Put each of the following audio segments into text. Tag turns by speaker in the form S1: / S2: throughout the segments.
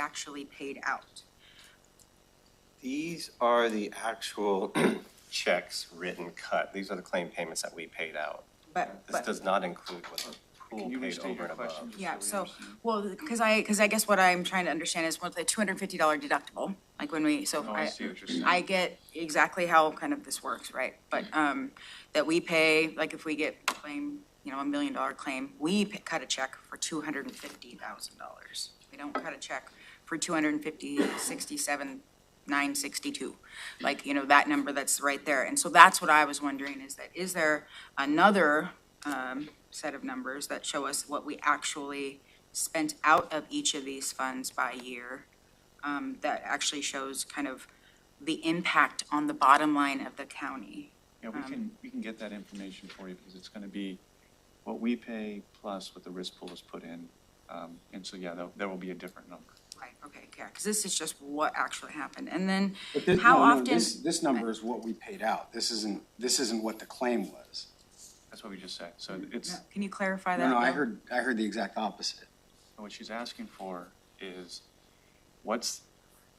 S1: actually paid out.
S2: These are the actual checks written cut. These are the claim payments that we paid out.
S1: But,
S2: This
S1: but,
S2: does not include what the pool
S3: Can you
S2: paid
S3: restate
S2: over
S3: your
S2: and
S3: question?
S2: above.
S3: just
S1: yeah,
S3: we
S1: so,
S3: understand?
S1: well, because I, because I guess what I'm trying to understand is what the two hundred and fifty dollar deductible, like when we, so
S3: No, Oh, I
S1: I,
S3: see what you're saying.
S1: I get exactly how kind of this works, right? But, um, that we pay, like if we get claim, you know, a million dollar claim, we p- cut a check for two hundred and fifty thousand dollars. We don't cut a check for two hundred and fifty, sixty-seven, nine sixty-two. Like, you know, that number that's right there. And so that's what I was wondering is that, is there another, um, set of numbers that show us what we actually spent out of each of these funds by year? Um, that actually shows kind of the impact on the bottom line of the county.
S3: Yeah, we can, we can get that information for you because it's going to be what we pay plus what the risk pool has put in. Um, And so, yeah, there, there will be a different number.
S1: Right, okay, yeah, because this is just what actually happened. And then
S4: But this,
S1: how
S4: no, no,
S1: often?
S4: this, this number is what we paid out. This isn't, this isn't what the claim was.
S3: That's what we just said. So it's,
S1: No, Can you clarify that?
S4: No, no, I
S1: Bill?
S4: heard, I heard the exact opposite.
S3: what she's asking for is what's,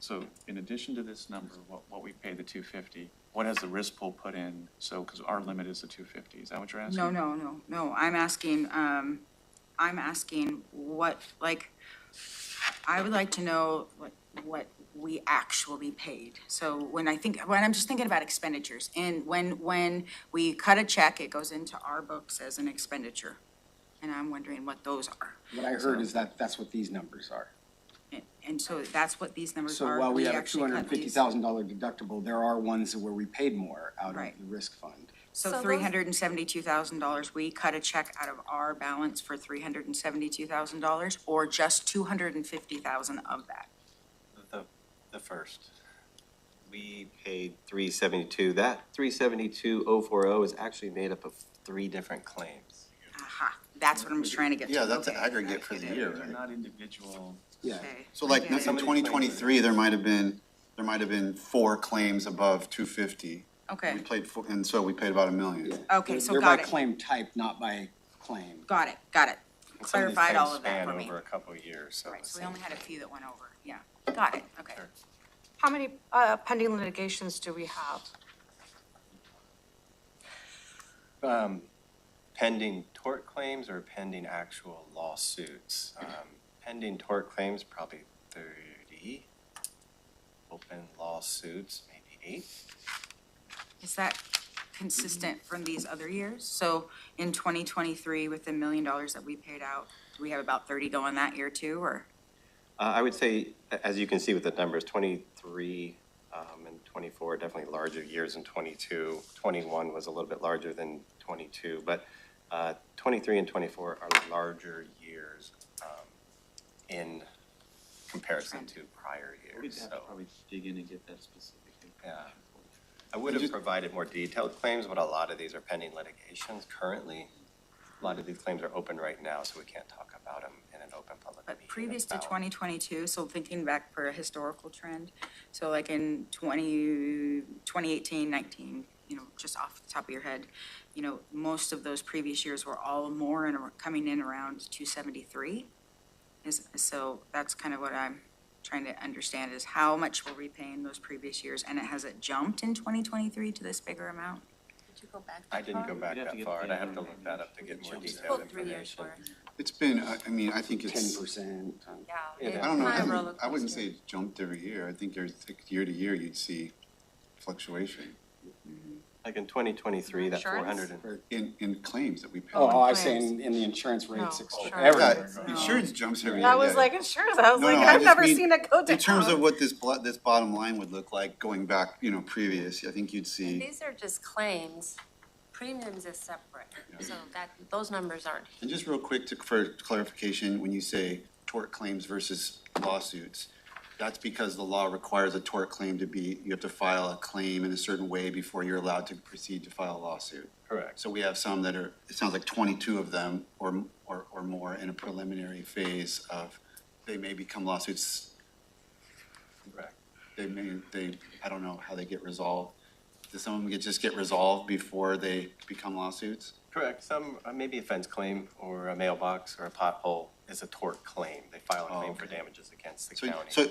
S3: so in addition to this number, what, what we paid the two fifty, what has the risk pool put in? So, because our limit is the two fifty. Is that what you're asking?
S1: No, no, no, no, I'm asking, um, I'm asking what, like, I would like to know what, what we actually paid. So when I think, when I'm just thinking about expenditures, and when, when we cut a check, it goes into our books as an expenditure. And I'm wondering what those are.
S4: What I heard is that, that's what these numbers are.
S1: And- And so that's what these numbers
S4: So
S1: are.
S4: while we have a two
S1: actually
S4: hundred
S1: cut
S4: and fifty
S1: these.
S4: thousand dollar deductible, there are ones where we paid more out of
S1: Right.
S4: the risk fund.
S1: So
S5: So those-
S1: three hundred and seventy-two thousand dollars, we cut a check out of our balance for three hundred and seventy-two thousand dollars, or just two hundred and fifty thousand of that?
S2: The, the first. We paid three seventy-two. That three seventy-two oh four oh is actually made up of three different claims.
S1: Aha, that's what I'm just trying to get to.
S6: Yeah, that's an
S1: Okay,
S6: aggregate for
S1: I
S6: the
S1: get it.
S6: year,
S3: They're
S6: right?
S3: not individual.
S4: Yeah.
S1: Okay,
S6: So
S1: I
S6: like,
S1: get it.
S6: in twenty twenty-three, there might have been, there might have been four claims above two fifty. We
S1: Okay,
S6: played, four- and so we paid about a million.
S1: okay,
S4: They're-
S1: so got
S4: They're by
S1: it,
S4: claim type, not by claim.
S1: got it, got it.
S2: And some of these
S1: Clarified all
S2: claims
S1: of that
S2: span
S1: for me.
S2: Over a couple of years, so.
S1: Right, so we
S2: it's-
S1: only had a few that went over, yeah, got it, okay.
S2: Sure.
S5: How many uh, pending litigations do we have?
S2: um, pending tort claims or pending actual lawsuits. Um, Pending tort claims, probably thirty. Open lawsuits, maybe eight.
S1: Is that consistent from these other years? So in twenty twenty-three, with the million dollars that we paid out, do we have about thirty going that year too, or?
S2: Uh, I would say, a- as you can see with the numbers, twenty-three um, and twenty-four are definitely larger years than twenty-two. Twenty-one was a little bit larger than twenty-two, but uh, twenty-three and twenty-four are larger years um, in comparison to prior
S3: We'd
S2: years,
S3: have
S2: so.
S3: to probably dig in and get that specific.
S2: Yeah. I would have provided more detailed claims, but a lot of these are pending litigations currently. A lot of these claims are open right now, so we can't talk about them in an open public meeting.
S1: But previous to
S2: about-
S1: 2022, so thinking back for a historical trend, so like in 20, 2018, 19, you know, just off the top of your head, you know, most of those previous years were all more and coming in around 273. Is, so that's kind of what I'm trying to understand is how much were we paying those previous years? And it has it jumped in 2023 to this bigger amount?
S5: Did you go back
S2: I didn't go back
S3: We'd have to
S2: that
S3: get
S2: far, and I
S3: the-
S2: have to look that up to get more
S3: Jumps
S2: detailed
S5: three years
S2: information.
S5: worth.
S6: It's been, I, I mean, I think
S4: Ten
S6: it's,
S4: percent.
S5: Yeah.
S2: Yeah,
S5: it's
S6: I don't know,
S5: not a
S6: I
S5: roller
S6: wouldn't- I wouldn't say
S5: coaster.
S6: it jumped every year. I think there's, like, year to year, you'd see fluctuation
S2: Like in 2023, that
S5: Insurance?
S2: 400 and
S6: in, in claims that we pay.
S4: Oh, I was
S5: Claims.
S4: saying in the insurance rates,
S5: No.
S4: ex-
S5: Sure.
S6: Yeah,
S4: everywhere.
S6: insurance jumps every year.
S5: I was
S6: yeah.
S5: like, insurance, I was
S6: No,
S5: like,
S6: no, I
S5: I've
S6: just
S5: never
S6: mean-
S5: seen it go down.
S6: In terms of what this, blo- this bottom line would look like going back, you know, previous, I think you'd
S7: And
S6: see,
S7: These are just claims. Premiums is separate, so that, those numbers aren't
S6: and just real quick to, for clarification, when you say tort claims versus lawsuits, that's because the law requires a tort claim to be, you have to file a claim in a certain way before you're allowed to proceed to file a lawsuit.
S2: correct.
S6: So we have some that are, it sounds like twenty-two of them or, or, or more in a preliminary phase of, they may become lawsuits
S2: Correct.
S6: they may, they, I don't know how they get resolved. Does some of them get, just get resolved before they become lawsuits?
S2: Correct, some, uh, maybe a fence claim, or a mailbox, or a pothole, is a tort claim. They file a
S6: Oh,
S2: claim for
S6: okay.
S2: damages against the
S6: So,
S2: county.
S6: Oh, so